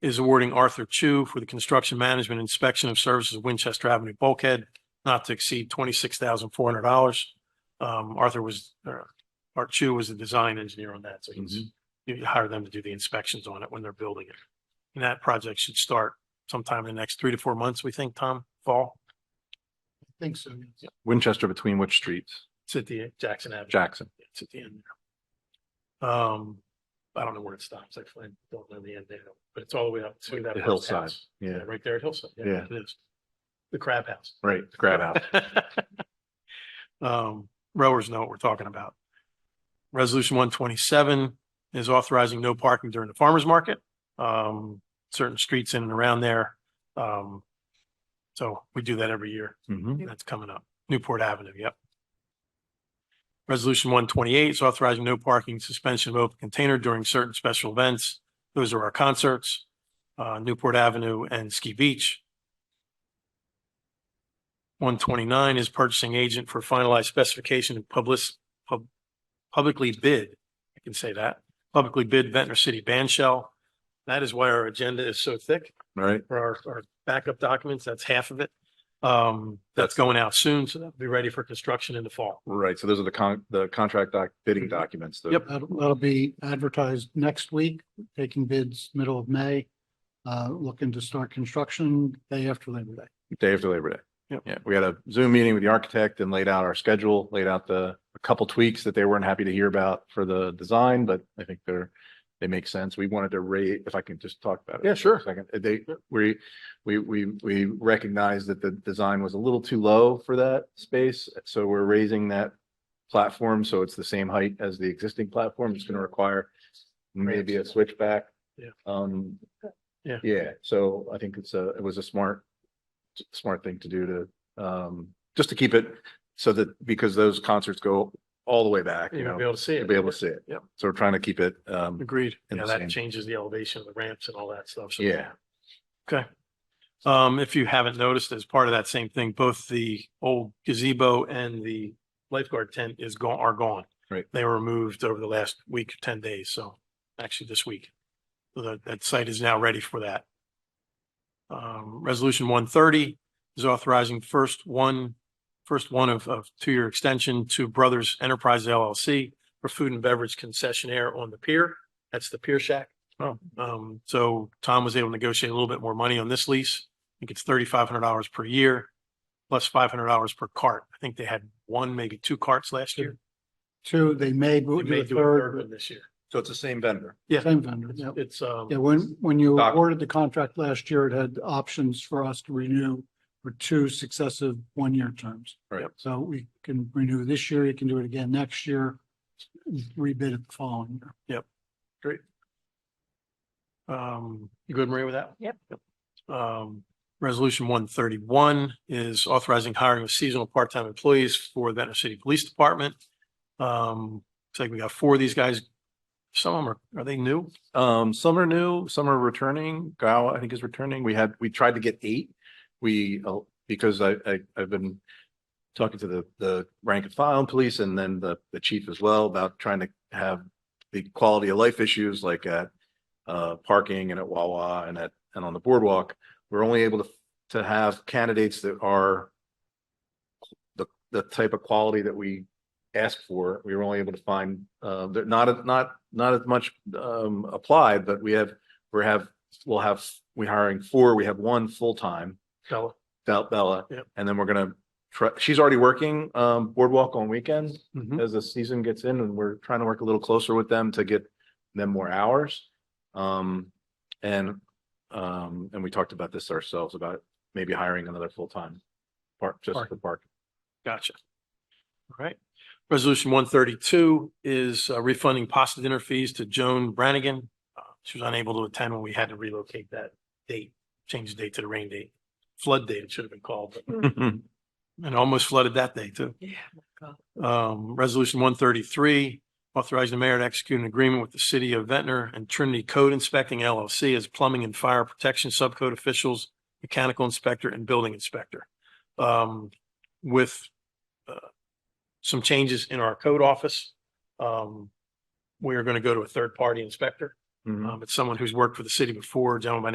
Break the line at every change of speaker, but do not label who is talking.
is awarding Arthur Chu for the construction management inspection of services of Winchester Avenue bulkhead not to exceed twenty-six thousand four hundred dollars. Um, Arthur was, or Art Chu was the design engineer on that, so
Mm-hmm.
he's, you hire them to do the inspections on it when they're building it. And that project should start sometime in the next three to four months, we think, Tom, fall. I think so.
Winchester between which streets?
It's at the Jackson Avenue.
Jackson.
It's at the end there. Um, I don't know where it stops. Actually, I don't know the end there, but it's all the way up to that.
The
first
hillside.
house.
Yeah.
Right there at Hillside.
Yeah.
It is. The crab house.
Right, the crab house.
Um, rowers know what we're talking about. Resolution one twenty-seven is authorizing no parking during the farmer's market. Um, certain streets in and around there. Um, so we do that every year.
Mhm.
Mm-hmm. That's coming up. Newport Avenue, yep. Resolution one twenty-eight is authorizing no parking suspension of open container during certain special events. Those are our concerts, uh, Newport Avenue and Ski Beach. One twenty-nine is purchasing agent for finalized specification and public, pub, publicly bid. I can say that, publicly bid Ventnor City Band Shell. That is why our agenda is so thick
All right.
for our, our backup documents. That's half of it. Um, that's going out soon, so that'll be ready for construction in the fall.
Right. So those are the con, the contract doc, bidding documents. the-
Yep.
That'll, that'll be advertised next week, taking bids middle of May. Uh, looking to start construction day after Labor Day.
Day after Labor Day.
Yep.
Yeah, we had a Zoom meeting with the architect and laid out our schedule, laid out the, a couple tweaks that they weren't happy to hear about for the design, but I think they're, they make sense. We wanted to rate, if I can just talk about it.
Yeah,
for a
sure.
Second, Uh, they, we, we, we, we recognized that the design was a little too low for that space, so we're raising that platform, so it's the same height as the existing platform. It's gonna require maybe a switchback.
Yeah.
Um,
Yeah.
yeah, so I think it's a, it was a smart smart thing to do to, um, just to keep it so that, because those concerts go all the way back, you
You'll be
know,
able to see
to
it.
be able to see it.
Yeah.
So we're trying to keep it, um,
Agreed.
And
Yeah,
the
that
same.
changes the elevation of the ramps and all that stuff. So-
yeah,
Okay. Um, if you haven't noticed, as part of that same thing, both the old gazebo and the lifeguard tent is gone, are gone.
Right.
They were moved over the last week, ten days, so actually this week. So That, that site is now ready for that. Um, resolution one thirty is authorizing first one, first one of, of two-year extension to Brothers Enterprise LLC for food and beverage concessionaire on the pier. That's the Pier Shack. Um, so Tom was able to negotiate a little bit more money on this lease. I think it's thirty-five hundred dollars per year, plus five hundred dollars per cart. I think they had one, maybe two carts last year.
Two, they may
They
do
may
a
do a third
third,
one this year.
so it's the same vendor.
but same vendor.
It's-
Yeah.
It's, um,
Yeah, when, when you
Doc-
awarded the contract last year, it had options for us to renew for two successive one-year terms.
Right.
So we can renew this year, you can do it again next year, rebid it the following year.
um, you good, Maria, with that? Yep. Um, resolution one thirty-one is authorizing hiring of seasonal part-time employees for the Venter City Police Department. Um, it's like we got four of these guys. Some of them are, are they new?
Um, some are new, some are returning. Gao, I think is returning. We had, we tried to get eight. We, uh, because I, I, I've been talking to the, the rank and file police and then the, the chief as well about trying to have the quality of life issues like at uh, parking and at Wawa and at, and on the boardwalk. We're only able to, to have candidates that are the, the type of quality that we ask for. We were only able to find, uh, they're not, not, not as much, um, applied, but we have, we have, we'll have, we're hiring four. We have one full-time,
Fella.
Bel- Bella.
Yep.
And then we're gonna try, she's already working, um, boardwalk on weekends
Mm-hmm.
as the season gets in and we're trying to work a little closer with them to get them more hours. Um, and, um, and we talked about this ourselves about maybe hiring another full-time part, just for
Parking.
park.
Gotcha. All right. Resolution one thirty-two is uh, refunding pasta dinner fees to Joan Brannigan. Uh, She was unable to attend when we had to relocate that date, change the date to the rain date, flood date it should have been called, but- and almost flooded that day too.
Yeah.
Um, resolution one thirty-three, authorizing the mayor to execute an agreement with the city of Ventnor and Trinity Code Inspecting LLC as plumbing and fire protection subcode officials, mechanical inspector and building inspector. Um, with uh, some changes in our code office. Um, we are going to go to a third-party inspector.
Mhm.
Um, it's someone who's worked for the city before, a gentleman by the